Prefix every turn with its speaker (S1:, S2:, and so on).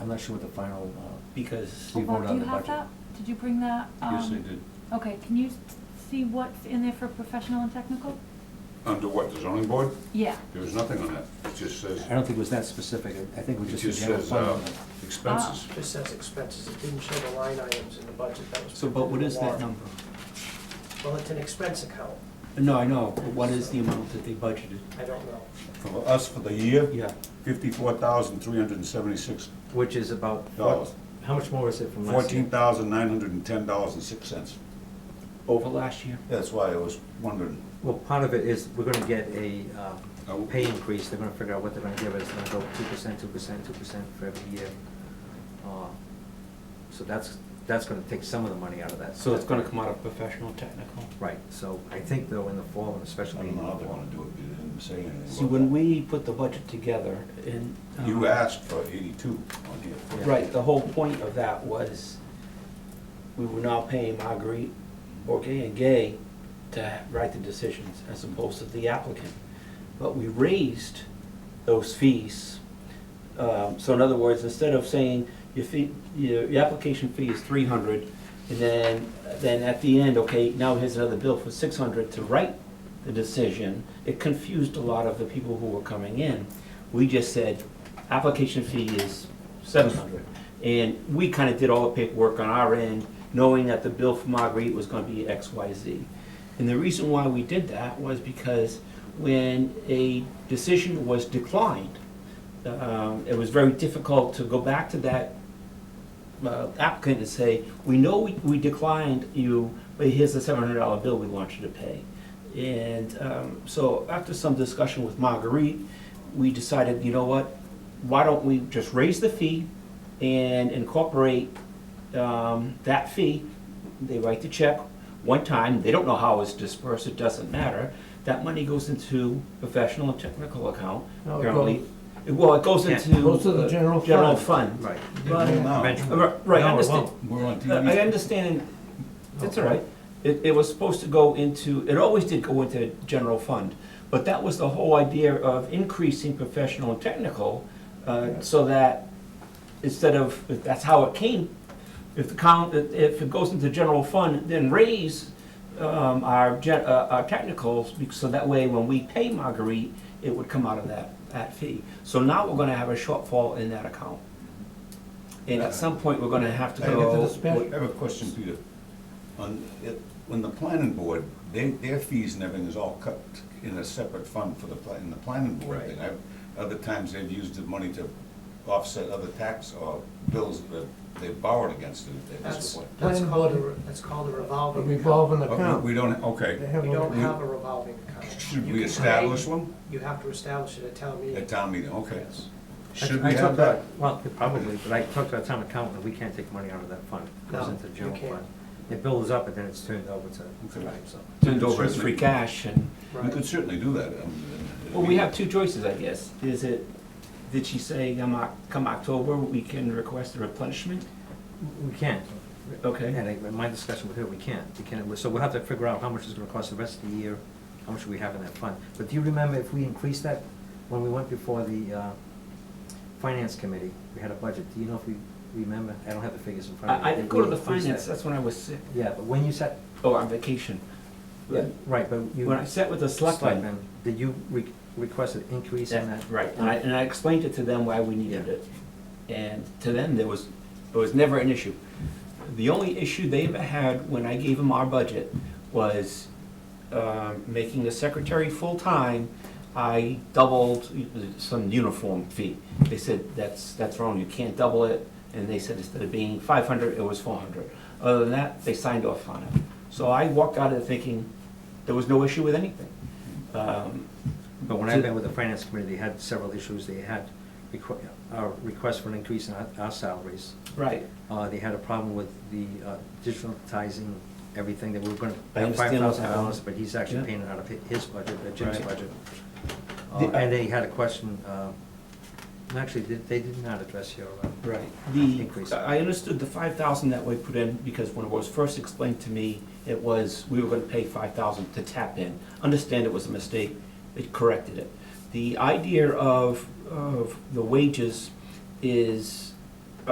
S1: I'm not sure what the final, uh,
S2: because,
S1: We
S3: Oh, Well,
S1: vote
S3: Bob,
S1: on
S3: do you
S1: the
S3: have
S1: budget.
S3: that? Did you bring that?
S4: Yes, I
S3: um,
S4: did.
S3: Okay, can you s- see what's in there for professional and technical?
S4: Under what, the zoning board?
S3: Yeah,
S4: There was nothing on that. It just says,
S1: I don't think it was that specific, I- I think it
S4: it
S1: was just a
S4: just
S1: general
S4: says
S1: fund.
S4: uh,
S1: number.
S4: expenses.
S2: Ah.
S5: Just says expenses, it didn't show the line items in the budget, that was.
S2: so, but what is that
S5: warrant.
S2: number?
S5: Well, it's an expense account,
S2: No, I know, but what is the amount that they budgeted?
S5: I don't know.
S4: For us, for the year,
S2: Yeah,
S4: fifty-four thousand, three hundred and seventy-six
S6: Which is about,
S4: dollars.
S6: how much more is it from last year?
S4: Fourteen thousand, nine hundred and ten dollars and six cents.
S2: over last year.
S4: That's why I was wondering.
S6: Well, part of it is, we're gonna get a,
S4: Oh.
S6: um, pay increase, they're gonna figure out what they're gonna give us, It's gonna go two percent, two percent, two percent for every year. Uh, So that's, that's gonna take some of the money out of that.
S2: So it's gonna come out of professional technical.
S6: Right, so I think though, in the fall, and
S4: I
S6: especially.
S4: don't know how they
S6: in the
S4: wanna do it, they didn't say anything.
S2: See,
S4: about
S2: when
S4: that.
S2: we put the budget together and. um,
S4: You asked for eighty-two on here.
S6: Yeah.
S2: Right, the whole point of that was, we were now paying Marguerite Bourget and Gay to write the decisions as opposed to the applicant. But we raised those fees. Um, So in other words, instead of saying your fee, your, your application fee is three hundred, and then, then at the end, okay, now here's another bill for six hundred to write the decision, it confused a lot of the people who were coming in. We just said, application fee is seven hundred. And we kind of did all the paperwork on our end, knowing that the bill for Marguerite was gonna be X, Y, Z. And the reason why we did that was because when a decision was declined, um, it was very difficult to go back to that uh, applicant and say, we know we we declined you, but here's the seven hundred dollar bill we want you to pay. And um, so after some discussion with Marguerite, we decided, you know what, why don't we just raise the fee and incorporate um, that fee? They write the check one time, they don't know how it's dispersed, it doesn't matter. That money goes into professional and technical account.
S7: No, it
S2: Apparently, it- Well, it goes
S6: Yeah.
S2: into.
S7: Goes to the
S2: uh,
S7: general
S2: General
S7: fund.
S2: fund.
S6: Right.
S7: Right.
S4: Now,
S6: Eventually.
S2: Uh, Right,
S6: No,
S2: I
S6: it
S2: understand,
S6: won't.
S4: We're on
S2: Uh, I
S4: TV.
S2: understand, Oh, it's all right. It, it was supposed to go into, it always did go into general fund, but that was the whole idea of increasing professional and technical, uh, so that instead of, if that's how it came, if the count, if if it goes into general fund, then raise um, our, gen- uh, our technicals, bec- so that way when we pay Marguerite, it would come out of that, that fee. So now we're gonna have a shortfall in that account. And at some point, we're gonna have to
S4: I
S7: Gotta get to
S2: go.
S7: the special.
S4: I have a question, Peter. On, it- when the planning board, they, their fees and everything is all cut in a separate fund for the, pla- in the planning board.
S5: Right.
S4: thing. I've- Other times, they've used the money to offset other tax or bills that they borrowed against it. if they
S5: That's,
S4: disappoint.
S5: that's
S7: Planning
S5: called a,
S7: board-
S5: re- that's called a
S7: A
S5: revolving account.
S7: revolving
S4: But we
S7: account.
S4: we don't,
S7: They
S4: okay.
S7: have
S5: We
S7: a-
S5: don't have a revolving account.
S4: Should
S5: You
S4: we
S5: can
S4: establish
S5: create-
S4: one
S5: You have to establish it at town meeting.
S4: at town meeting? Okay.
S5: Yes.
S6: I-
S4: Should
S6: I
S4: we have
S6: talked to-
S4: that?
S6: Well, probably, but I talked to our town accountant, we can't take money out of that fund, it goes
S5: No,
S6: into the
S5: you
S6: general
S5: can't.
S6: fund. It builds up and then it's turned over to,
S4: Okay.
S6: so.
S2: turned over as free
S4: Certainly.
S2: cash and,
S4: We
S5: Right.
S4: could certainly do that. um,
S2: well, we have two choices, I guess. Is it, did she say um, Oc- come October, we can request a replenishment?
S6: We can't.
S2: Okay.
S6: And I- in my discussion with her, we can't, we can't, so we'll have to figure out how much it's gonna cost the rest of the year, how much we have in that fund. But do you remember if we increased that, when we went before the, uh, finance committee, we had a budget, do you know if we remember? I don't have the figures in front of me.
S2: I, I didn't go to
S6: Did
S2: the
S6: we increase
S2: finance,
S6: that?
S2: that's when I was sick.
S6: Yeah, but when you sat,
S2: Oh, on vacation.
S6: right, but you.
S2: When I sat with the selectmen.
S6: Selectmen, Did you re- request an increase in that?
S2: That- Right, and I, and I explained it to them why we needed it. And to them, there was, it was never an issue. The only issue they ever had when I gave them our budget was um, making the secretary full-time, I doubled some uniform fee. They said, that's, that's wrong, you can't double it. And they said instead of being 500, it was 400. Other than that, they signed off on it. So I walked out of it thinking there was no issue with anything. Um,
S6: But when
S2: To-
S6: I've been with the finance committee, they had several issues, they had requ- uh, requests for an increase in our, our salaries.
S2: Right.
S6: Uh, they had a problem with the uh, digitalizing everything, that we were gonna
S2: I
S6: have five
S2: understand what's
S6: thousand dollars,
S2: happening.
S6: but he's actually
S2: Yeah.
S6: paying it out of hi- his budget, uh, Jim's
S2: Right.
S6: budget. Uh,
S2: The-
S6: And they had a question, uh, actually, they they did not address your, uh,
S2: Right. The,
S6: Increase.
S2: I understood the five thousand that we put in because when it was first explained to me, it was, we were gonna pay five thousand to tap in. Understand it was a mistake, it corrected it. The idea of, of the wages is